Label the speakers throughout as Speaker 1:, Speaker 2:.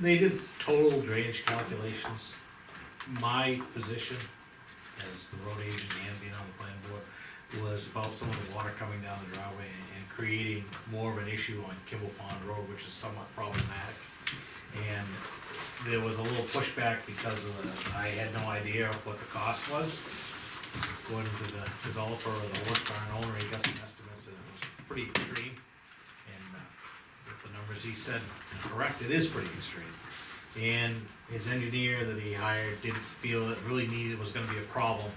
Speaker 1: they did total drainage calculations. My position as the road agent and being on the planning board was about some of the water coming down the driveway and- and creating more of an issue on Kimball Pond Road, which is somewhat problematic. And there was a little pushback because of the, I had no idea what the cost was. According to the developer or the horse barn owner, he got some estimates and it was pretty extreme. And uh, if the numbers he said are correct, it is pretty extreme. And his engineer that he hired didn't feel it really needed, was gonna be a problem.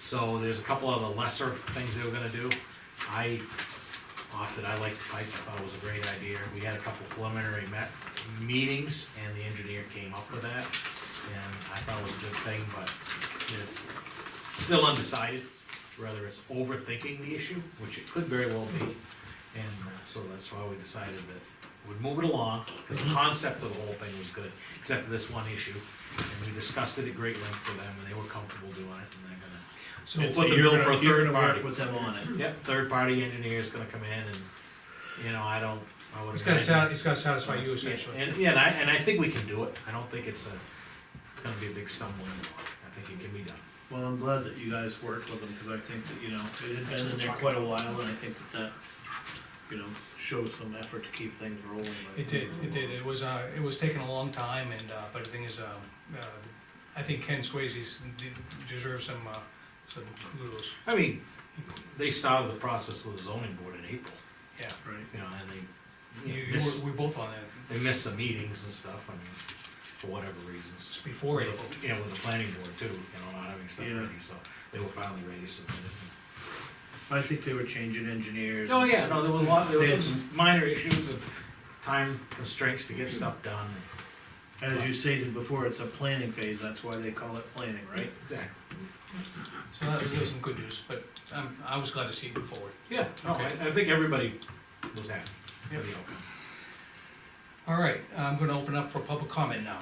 Speaker 1: So there's a couple of the lesser things they were gonna do. I opted, I liked the pipe, I thought it was a great idea. We had a couple preliminary met, meetings, and the engineer came up with that. And I thought it was a good thing, but it's still undecided, whether it's overthinking the issue, which it could very well be. And uh, so that's why we decided that we'd move it along, because
Speaker 2: Mm-hmm.
Speaker 1: the concept of the whole thing was good, except for this one issue. And we discussed it at great length with them, and they were comfortable doing it, and they're gonna
Speaker 3: So
Speaker 1: We'll
Speaker 3: so
Speaker 1: put the
Speaker 3: you're
Speaker 1: bill
Speaker 3: gonna-
Speaker 1: for a
Speaker 3: you're
Speaker 1: third
Speaker 3: gonna work
Speaker 1: party.
Speaker 3: With them on it.
Speaker 1: Yep, third-party engineer's gonna come in and, you know, I don't, I would.
Speaker 2: It's gonna
Speaker 1: imagine-
Speaker 2: sat, it's gonna satisfy you
Speaker 1: Yeah,
Speaker 2: essentially.
Speaker 1: And, yeah, and I, and I think we can do it, I don't think it's a, gonna be a big stumbling block, I think it can be done.
Speaker 3: Well, I'm glad that you guys worked with them, cause I think that, you know, it had been in there quite a while, and I think that that, you know, shows some effort to keep things rolling. like-
Speaker 2: It did, it did, it was, uh, it was taking a long time and, uh, but the thing is, um, uh, I think Ken Swayze's de- deserves some, uh, some kudos,
Speaker 1: I mean, they started the process with the zoning board in April,
Speaker 2: yeah.
Speaker 3: Right,
Speaker 1: you know, and they, you
Speaker 2: You,
Speaker 1: know,
Speaker 2: you
Speaker 1: missed,
Speaker 2: were, we both on that,
Speaker 1: they missed some meetings and stuff, I mean, for whatever reasons.
Speaker 2: it's before April.
Speaker 1: Yeah, with the planning board too, you know, not having stuff
Speaker 3: Yeah.
Speaker 1: ready, so they were finally ready, so.
Speaker 3: I think they were changing engineers.
Speaker 1: Oh, yeah, no, there was a lot, there was
Speaker 3: They had
Speaker 1: some minor issues and time constraints to get stuff done.
Speaker 3: As you stated before, it's a planning phase, that's why they call it planning, right?
Speaker 1: Exactly.
Speaker 2: So that was, that was some good news, but I'm, I was glad to see it move forward.
Speaker 1: Yeah, no, I, I think everybody was happy with the outcome.
Speaker 2: All right, I'm gonna open up for public comment now.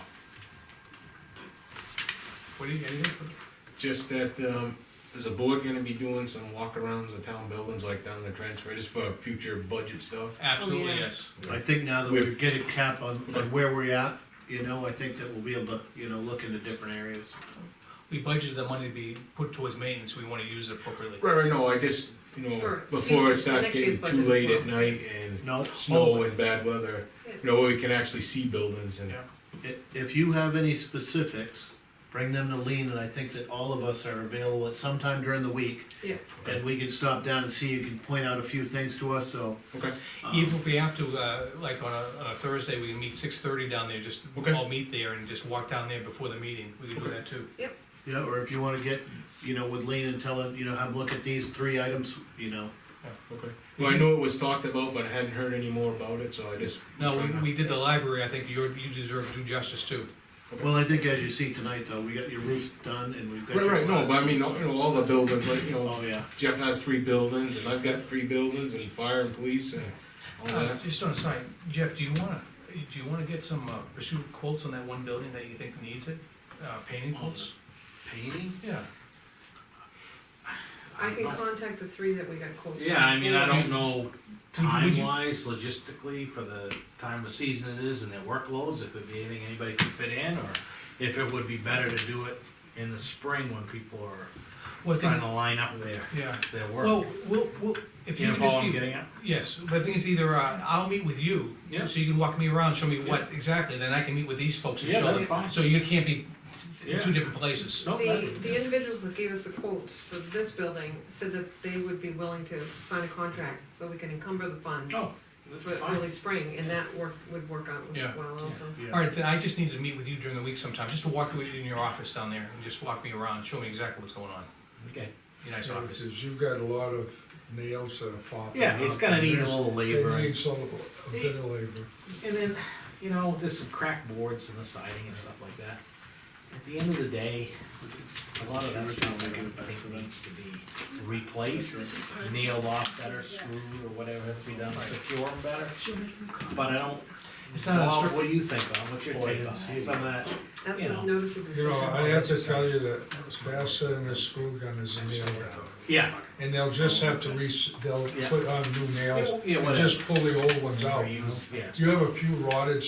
Speaker 2: What do you, anything?
Speaker 4: Just that, um, is the board gonna be doing some walkarounds of town buildings like down the transfer, just for future budget stuff?
Speaker 2: Absolutely,
Speaker 5: yeah.
Speaker 2: yes.
Speaker 3: I think now that we're getting cap on, on where we're at, you know, I think that we'll be able to, you know, look into different areas.
Speaker 2: We budgeted the money to be put towards maintenance, we wanna use it appropriately.
Speaker 4: Right, right, no, I just, you know,
Speaker 5: For
Speaker 4: before
Speaker 5: future-
Speaker 4: it starts
Speaker 5: next year's
Speaker 4: getting too
Speaker 5: budget
Speaker 4: late
Speaker 5: as
Speaker 4: at night and
Speaker 3: No,
Speaker 4: snow and bad weather,
Speaker 5: Yeah.
Speaker 4: you know, where we can actually see buildings and.
Speaker 2: Oh. Yeah.
Speaker 3: I- If you have any specifics, bring them to Lean, and I think that all of us are available at some time during the week.
Speaker 5: Yeah.
Speaker 3: And we can stop down and see, you can point out a few things to us, so.
Speaker 4: Okay,
Speaker 3: um,
Speaker 2: Even if we have to, uh, like on a, on a Thursday, we meet six thirty down there, just
Speaker 4: Okay.
Speaker 2: all meet there and just walk down there before the meeting, we can do that too.
Speaker 3: Yeah, or if you wanna get, you know, with Lean and tell him, you know, have a look at these three items, you know.
Speaker 4: okay. Well, I know it was talked about, but I hadn't heard any more about it, so I just.
Speaker 2: No, we, we did the library, I think you're, you deserve due justice too.
Speaker 3: Well, I think as you see tonight, though, we got your roof done and we've got.
Speaker 4: Right,
Speaker 3: your
Speaker 4: right, no,
Speaker 3: plaza.
Speaker 4: but I mean, you know, all the buildings, like, you know,
Speaker 3: Oh, yeah,
Speaker 4: Jeff has three buildings and I've got three buildings and fire and police and.
Speaker 1: Oh,
Speaker 4: all
Speaker 2: Uh,
Speaker 4: that.
Speaker 2: Just on a side, Jeff, do you wanna, do you wanna get some, uh, pursue quotes on that one building that you think needs it? Uh, painting quotes?
Speaker 1: Painting?
Speaker 2: Yeah.
Speaker 5: I can contact the three that we got quotes.
Speaker 1: Yeah, I mean, I don't know
Speaker 2: Would you-
Speaker 1: time-wise, logistically, for the time of season it is and their workloads, if it'd be anything anybody could fit in, or if it would be better to do it in the spring when people are
Speaker 2: Well, I
Speaker 1: trying
Speaker 2: think,
Speaker 1: to line up their,
Speaker 2: yeah,
Speaker 1: their
Speaker 2: well,
Speaker 1: work.
Speaker 2: we'll, we'll, if
Speaker 1: You
Speaker 2: you
Speaker 1: know
Speaker 2: could
Speaker 1: what
Speaker 2: just
Speaker 1: I'm
Speaker 2: be
Speaker 1: getting at?
Speaker 2: Yes, but the thing is either, uh, I'll meet with you,
Speaker 1: Yeah.
Speaker 2: so you can walk me around, show me what exactly, then I can meet with these folks and
Speaker 1: Yeah,
Speaker 2: show
Speaker 1: that's
Speaker 2: them.
Speaker 1: fine.
Speaker 2: So you can't be in
Speaker 1: Yeah.
Speaker 2: two different places.
Speaker 1: No,
Speaker 5: The,
Speaker 1: that-
Speaker 5: the individuals that gave us the quotes for this building said that they would be willing to sign a contract, so we can encumber the funds
Speaker 1: No, Oh, that's
Speaker 5: for
Speaker 1: fine.
Speaker 5: early spring, and that work, would work out
Speaker 2: Yeah.
Speaker 5: well also.
Speaker 2: All
Speaker 3: yeah.
Speaker 2: right, then I just need to meet with you during the week sometime, just to walk through in your office down there and just walk me around, show me exactly what's going on.
Speaker 1: Okay.
Speaker 2: Your nice
Speaker 6: Yeah,
Speaker 2: office.
Speaker 6: Because you've got a lot of nails that are popping
Speaker 1: Yeah, it's
Speaker 2: Uh,
Speaker 6: up,
Speaker 1: gonna
Speaker 6: and
Speaker 1: need a
Speaker 6: there's-
Speaker 1: little
Speaker 6: it
Speaker 1: labor.
Speaker 6: needs a little- a bit of labor.
Speaker 1: And then, you know, there's some crack boards and the siding and stuff like that. At the end of the day, a lot of that stuff I don't think needs to be replaced, nailed off better, screwed or whatever has to be done, secure them better. But I don't,
Speaker 2: It's not a
Speaker 1: Bob,
Speaker 2: strict,
Speaker 1: what do you think on, what's your
Speaker 3: Boy, I
Speaker 1: take
Speaker 3: didn't
Speaker 1: on
Speaker 3: see
Speaker 1: that?
Speaker 3: it.
Speaker 1: Some of that,
Speaker 5: That's
Speaker 1: You
Speaker 5: his
Speaker 1: know.
Speaker 5: notice of
Speaker 6: You know, I
Speaker 5: decision.
Speaker 6: have to tell you that it's faster than a screw gun is a nail gun.
Speaker 1: yeah,
Speaker 6: And they'll just have to re, they'll
Speaker 1: Yeah.
Speaker 6: put on new nails
Speaker 1: Yeah,
Speaker 6: and
Speaker 1: whatever.
Speaker 6: just pull the old ones
Speaker 1: or
Speaker 6: out. you know?
Speaker 1: use, yeah.
Speaker 6: You have a few rotted